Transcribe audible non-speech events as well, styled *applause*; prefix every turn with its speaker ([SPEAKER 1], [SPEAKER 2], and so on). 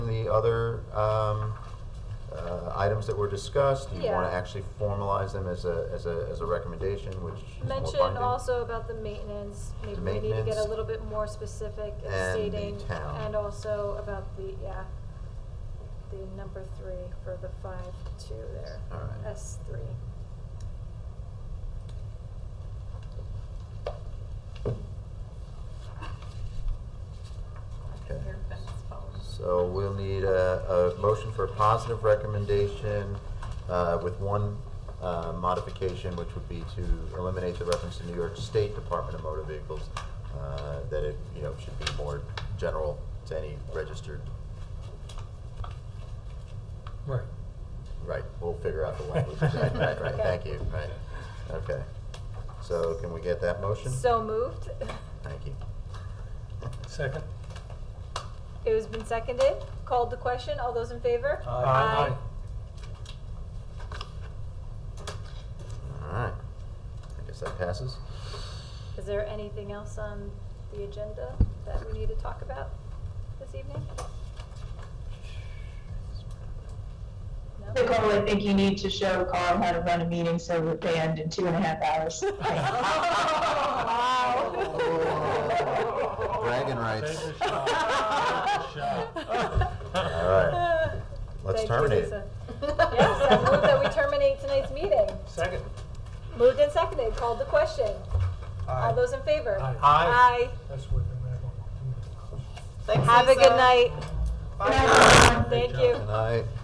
[SPEAKER 1] other um, uh, items that were discussed? Do you want
[SPEAKER 2] Yeah.
[SPEAKER 1] to actually formalize them as a, as a, as a recommendation, which is more binding?
[SPEAKER 2] Mention also about the maintenance, maybe we need to get a
[SPEAKER 1] Maintenance.
[SPEAKER 2] little bit more specific in
[SPEAKER 1] And the
[SPEAKER 2] stating.
[SPEAKER 1] town.
[SPEAKER 2] and also about the, yeah, the number three for the five two there.
[SPEAKER 1] All right.
[SPEAKER 2] S three.
[SPEAKER 1] Okay.
[SPEAKER 3] Your fence posts.
[SPEAKER 1] So we'll need a, a motion for a positive recommendation uh, with one uh, modification, which would be to eliminate the reference to New York State Department of Motor Vehicles, uh, that it, you know, should be more general to any registered.
[SPEAKER 4] Right.
[SPEAKER 1] Right, we'll figure out the
[SPEAKER 4] *laughs*
[SPEAKER 2] *laughs*
[SPEAKER 1] language. Right, right, right, thank you, right. Okay. So can we get that motion?
[SPEAKER 2] So moved.
[SPEAKER 1] Thank you.
[SPEAKER 4] Second?
[SPEAKER 2] It has been seconded, called the question, all those in favor?
[SPEAKER 4] Aye.
[SPEAKER 1] All right. I guess that passes.
[SPEAKER 2] Is there anything else on the agenda that we need to talk about this evening? No?
[SPEAKER 5] Nicole, I think you need to show Carl how to run a meeting so that they end in two and a half hours.
[SPEAKER 2] Wow.
[SPEAKER 1] Bragging rights.
[SPEAKER 4] Take the shot. Take the shot.
[SPEAKER 1] All right. Let's
[SPEAKER 2] Thank you,
[SPEAKER 1] terminate it.
[SPEAKER 2] Lisa. Yes, I move that we terminate tonight's meeting.
[SPEAKER 4] Second?
[SPEAKER 2] Moved and seconded, called the question. All those in favor?
[SPEAKER 4] Aye.
[SPEAKER 2] Aye.
[SPEAKER 4] That's what the man wanted.
[SPEAKER 3] Thanks,
[SPEAKER 2] Have a
[SPEAKER 3] Lisa.
[SPEAKER 2] good night.
[SPEAKER 5] Bye.
[SPEAKER 2] Thank
[SPEAKER 4] job.
[SPEAKER 2] you.
[SPEAKER 1] Good night.